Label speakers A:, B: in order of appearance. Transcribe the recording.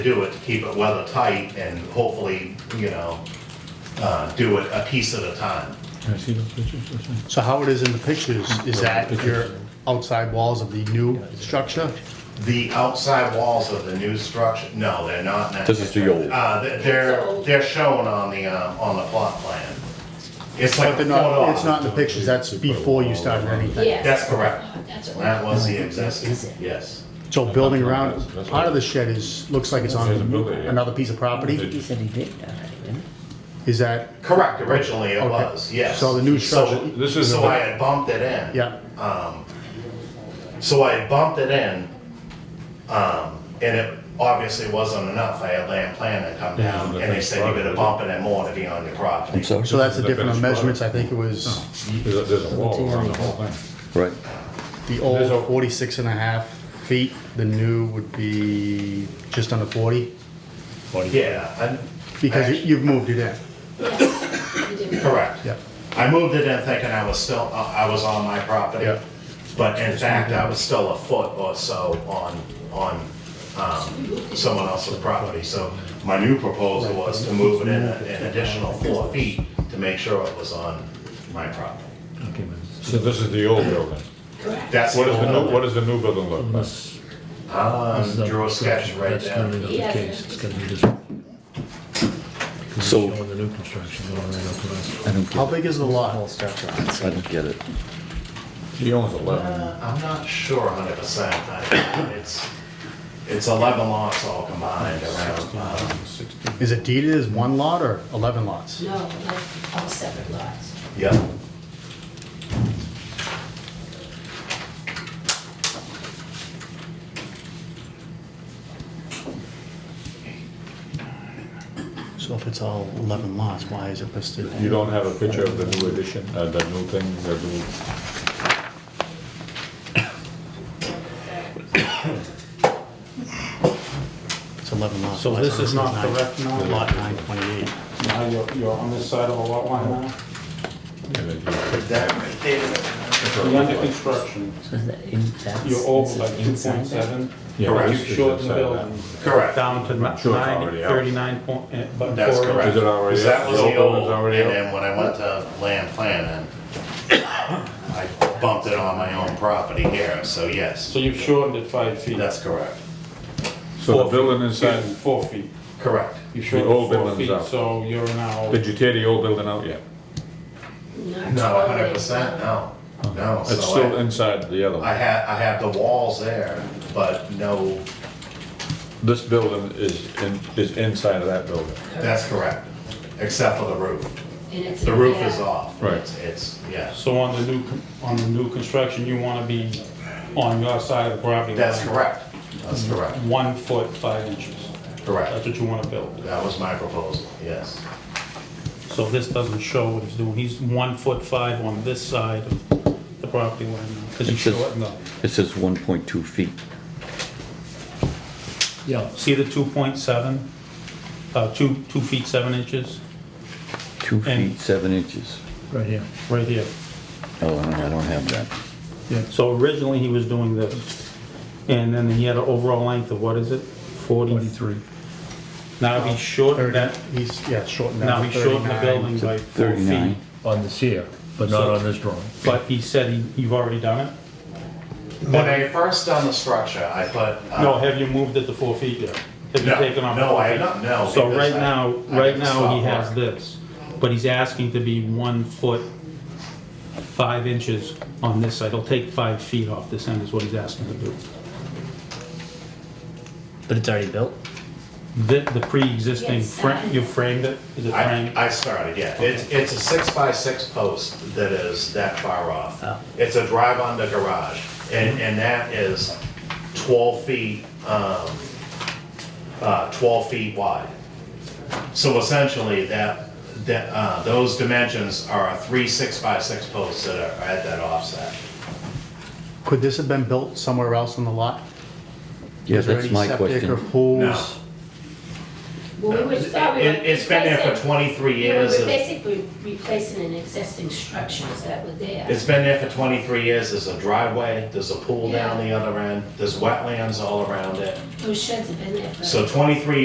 A: do it to keep it weather tight and hopefully, you know, uh, do it a piece at a time.
B: Can I see those pictures for a second?
C: So how it is in the pictures, is that your outside walls of the new structure?
A: The outside walls of the new structure, no, they're not.
D: This is the old.
A: Uh, th- they're, they're shown on the, um, on the plot plan. It's like
C: But
A: a
C: they're
A: photo.
C: not, it's not in the pictures, that's before you started anything.
E: Yes.
A: That's correct.
E: Oh, That's
A: That
E: what
A: was the existing, yes.
C: So building around, part of the shed is, looks like it's on another piece of property,
F: He said he did already, didn't he?
C: is that,
A: Correct, originally it
C: Okay.
A: was, yes.
C: So the new structure-
A: So-
G: This isn't
A: So
G: the-
A: I had bumped it in.
C: yeah,
A: So I had bumped it in, um, and it obviously wasn't enough. I had land plan to come down, and they said you gotta bump it in more to be on your property.
D: sorry?
C: so that's the different on measurements, I think it was
G: There's a, there's a wall around the whole thing.
D: Right.
C: the
G: There's
C: old
G: a-
C: 46 and a half feet, the new would be just under 40,
A: Yeah, I.
C: because you- you've moved it in,
E: I.
A: Correct.
C: yeah.
A: I moved it in thinking I was still, uh, I was on my property.
C: Yeah.
A: But in fact, I was still a foot or so on, on, um, someone else's property. So my new proposal was to move it in a- an additional four feet to make sure it was on my property.
B: Okay, but
G: So this is the old building.
E: Correct.
A: That's.
G: What is the new,
A: only-
G: what does the new building look like?
B: this-
A: Um,
B: this is a-
A: drew a sketch right
B: That's gonna be
A: there.
B: not the
E: Yeah.
B: case, it's gonna be this. one. 'Cause it's
D: So-
B: Showing the new construction going right up to us.
D: I don't
C: How
D: get it.
C: big is the lot?
D: I don't get it.
G: He owns eleven.
A: Uh, I'm not sure hundred percent, it's, it's eleven lots all combined around, um,
C: Is it deeded as one lot or 11 lots?
E: No, like all separate lots.
A: yeah.
C: So if it's all 11 lots, why is it listed?
G: You don't have a picture of the new addition, uh, the new thing, the new,
C: It's 11 lots.
H: So this is not correct now?
C: Lot 928.
H: Now you're, you're on this side of the lot line now?
G: and then you-
A: That right there.
H: You're under construction.
F: So is that in, that's,
H: You're over
F: this is
H: like two
F: inside
H: point
F: that?
H: seven.
G: Yeah,
H: You
G: this is
H: shortened the
G: inside that.
H: building.
A: Correct.
H: Down to
G: Not sure it's
H: nine,
G: already out.
H: thirty-nine point, eh, but
A: That's
H: four
A: correct.
H: inches.
G: Is it already
A: Because That
G: up?
A: was
G: The
A: the
G: old one
A: old,
G: is already
A: and
G: up?
A: then when I went to land planning, I bumped it on my own property here, so yes,
H: So you've shortened it five feet.
A: that's correct.
G: so the
H: Four
G: building uh,
H: feet.
G: inside,
H: Excuse me, Four feet.
A: Correct.
H: You
G: old
H: shortened it four
G: building's
H: feet,
G: out.
H: so you're now,
G: did you tear the old building out yet?
E: Not
A: No,
E: totally.
A: hundred percent, no, no.
G: It's
A: so I-
G: still inside the other
A: I
G: one.
A: had, I had the walls there, but no,
G: This building is in, is inside of that building.
A: that's correct, except for the roof.
E: And it's.
A: The roof
E: yeah.
A: is off.
G: Right.
A: It's- It's, yeah.
H: so on the new, con- on the new construction, you wanna be on your side of the property line.
A: That's correct. That's correct.
H: One foot, five inches. That's
A: Correct.
H: what you wanna build.
A: That was my proposal, yes.
H: So this doesn't show what he's doing. He's one foot five on this side of the property line now, because he's
D: It says-
H: shortened up.
D: It says 1.2 feet.
B: Yeah,
H: See the two point seven, uh, two, two feet seven inches,
D: Two
H: And-
D: feet, seven inches.
B: right here.
H: right here.
D: Oh, no, I don't have that.
H: So originally, he was doing this, and then he had an overall length of, what is it? Forty.
B: Twenty-three.
H: Now he shortened that,
C: He's, yeah, shortened
H: now
C: down
H: he
C: to
H: shortened the
C: 39.
H: building by four feet.
D: 39.
B: On this here, but not on this drawing.
H: But he said, he- you've already done it?
A: When I first done the structure, I put. uh,
H: No, have you moved it to four feet yet? Have you
A: No,
H: taken off? the
A: no,
H: four
A: I
H: feet?
A: don't- no,
H: So
A: because
H: right
A: I-
H: now,
A: I
H: right
A: didn't
H: now, he
A: stop
H: has
A: work.
H: this, but he's asking to be one foot, five inches on this side. He'll take five feet off this end is what he's asking to do.
F: But it's already built?
H: The, the pre-existing,
E: Yes,
H: fra-
E: I-
H: you framed it? Is it
A: I,
H: framed?
A: I started, yeah. It's, it's a six by six post that is that far off.
F: Oh.
A: It's a drive under garage and, and that is twelve feet, um, uh, twelve feet wide. So essentially that, that, uh, those dimensions are three six by six posts that are at that offset.
C: Could this have been built somewhere else on the lot?
D: Yeah,
C: Is there
D: that's
C: any
D: my
C: septic or
D: question.
A: No.
C: pools?
E: Well, we would thought we were
A: It- It's been there for
E: replacing-
A: twenty-three
E: Yeah,
A: years.
E: We're
A: and-
E: basically replacing an existing structure that were there.
A: It's been there for 23 years, there's a driveway, there's a pool down
E: Yeah.
A: the other end, there's wetlands all around it.
E: Those sheds have been there for.
A: So 23